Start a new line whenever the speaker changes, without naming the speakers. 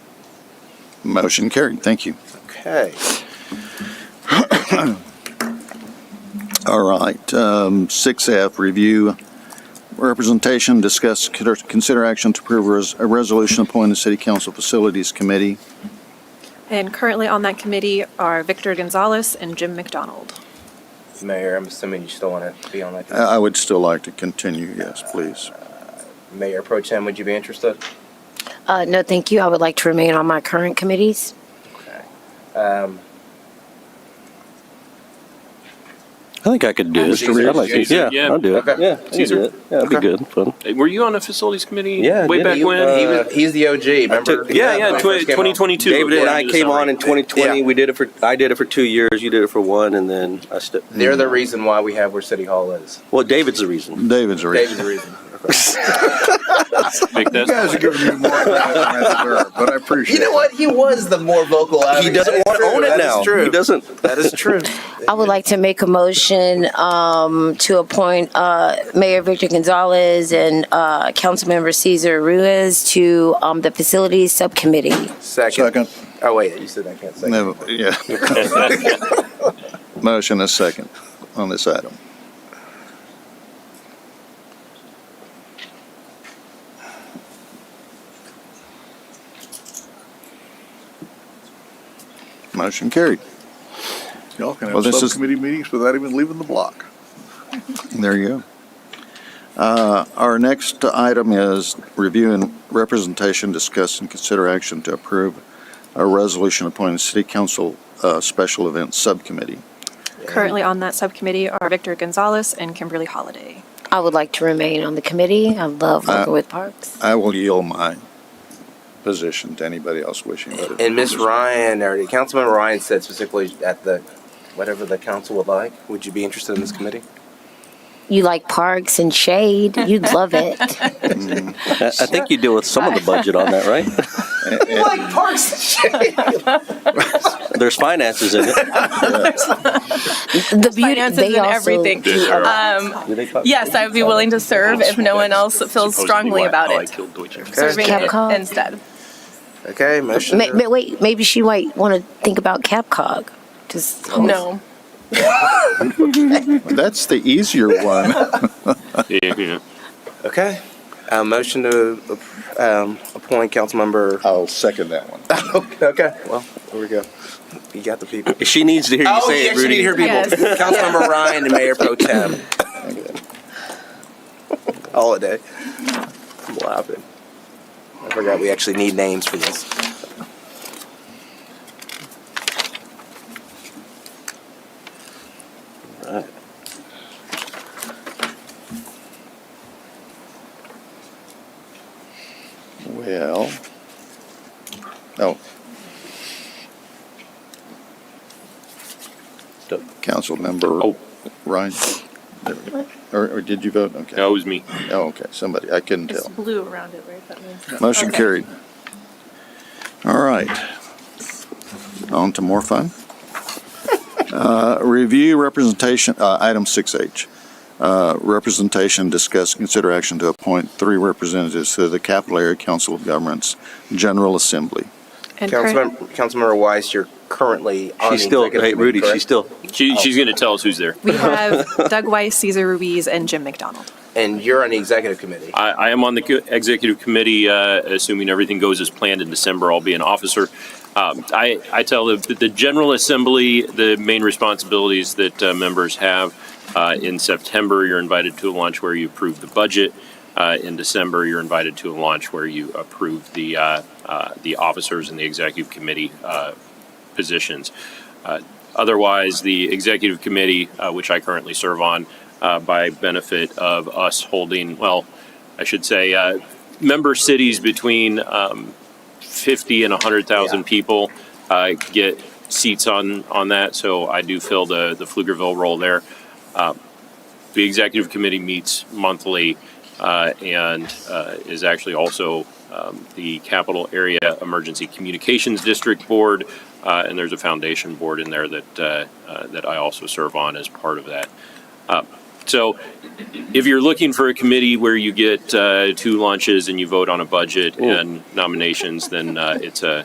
Motion carried. Thank you.
Okay.
All right, um, six F, review representation, discuss, consider- consider action to approve res- a resolution appointing the City Council Facilities Committee.
And currently on that committee are Victor Gonzalez and Jim McDonald.
Mayor, I'm assuming you still want to be on that.
Uh, I I would still like to continue, yes, please.
Mayor Pro Tem, would you be interested?
Uh, no, thank you. I would like to remain on my current committees.
Okay. Um,
I think I could do it.
Mr. Reed?
I'd like to-
Caesar,
Yeah,
yeah.
I'll do it.
Okay.
Yeah, I can
Caesar?
do it. Yeah, it'd be
Okay.
good, fun.
Hey, Were you on the facilities committee?
Yeah, uh, I
Way
did.
back
he-
when?
he was- he's the OG, remember?
took- yeah,
yeah,
When I
tw-
first came on.
2022.
David and
according
I
to the
came on in
summary.
2020.
Yeah.
We did it for, I did it for two years, you did it for one, and then I stepped.
They're the reason why we have where City Hall is.
Well, David's the reason.
David's a
David's
reason.
the reason.
Make
You guys are
that.
giving me more but I appreciate
You know what? He was the more vocal.
He doesn't want to own it now. He doesn't.
That is true.
I would like to make a motion um, to appoint uh, Mayor Victor Gonzalez and uh, Councilmember Cesar Ruiz to um, the Facilities Subcommittee.
Second.
Second,
Oh wait, you said I can't say.
no, yeah. Motion is second on this item. Motion carried.
Y'all can
Well,
have
this is-
subcommittee meetings without even leaving the block.
There you go. Uh, Our next item is review and representation, discuss and consider action to approve a resolution appointing City Council uh, Special Events Subcommittee.
Currently on that subcommittee are Victor Gonzalez and Kimberly Holiday.
I would like to remain on the committee. I love working
Uh,
with parks.
I will yield my position to anybody else wishing. to.
And Miss Ryan, or Councilman Ryan said specifically at the, whatever the council would like, would you be interested in this committee?
You like parks and shade. You'd love it.
I I think you deal with some of the budget on that, right?
Like parks.
There's finances in it.
The beauty.
finances
They
and
also.
everything. Um,
Do they talk-
yes, I would be willing to serve if no one else feels
Supposedly
strongly
why
about
"Oh, I
it.
killed Deutsche.
Serving it
Capcom.
instead.
Okay, motion.
Ma- ma- wait, maybe she might want to think about Capcog. Just
No.
That's the easier one.
Yeah, yeah.
Okay, uh, motion to, um, appoint Councilmember.
I'll second that one.
Okay, well, there we go. You got the people.
She needs to hear you
Oh,
say
yes,
it,
you need to
Rudy.
hear people.
Yes.
Councilmember Ryan and Mayor Pro Tem. Holiday. I'm laughing. I forgot we actually need names for this.
Well, oh.
Oh. Oh.
Councilmember Ryan, There we go. or, or did you vote? Okay.
That was me.
Oh, okay, somebody, I couldn't tell.
blue around it, right? That means.
Motion
Okay.
carried. All right. On to more fun. Uh, Review representation, uh, item 6H. Uh, Representation, discuss, consider action to appoint three representatives to the Capital Area Council of Governments General Assembly.
And current-
Councilmember, Councilmember Weiss, you're currently on
She's
the
still,
executive
hey,
committee,
Rudy,
correct?
she's still,
She, she's going to tell us who's there.
We have Doug Weiss, Cesar Ruiz, and Jim McDonald.
And you're on the executive committee.
I, I am on the co- executive committee, uh, assuming everything goes as planned in December, I'll be an officer. Um, I, I tell the, the General Assembly, the main responsibilities that uh, members have, uh, in September, you're invited to a lunch where you approve the budget. Uh, in December, you're invited to a lunch where you approve the, uh, uh, the officers and the executive committee, uh, positions. Uh, Otherwise, the executive committee, uh, which I currently serve on, uh, by benefit of us holding, well, I should say, uh, member cities between um, 50 and 100,000 people uh, get seats on, on that. So I do fill the, the Pflugerville role there. Uh, The executive committee meets monthly uh, and uh, is actually also um, the Capital Area Emergency Communications District Board, uh, and there's a foundation board in there that uh, uh, that I also serve on as part of that. Uh, so, if you're looking for a committee where you get uh, two lunches and you vote on a budget and nominations, then uh, it's a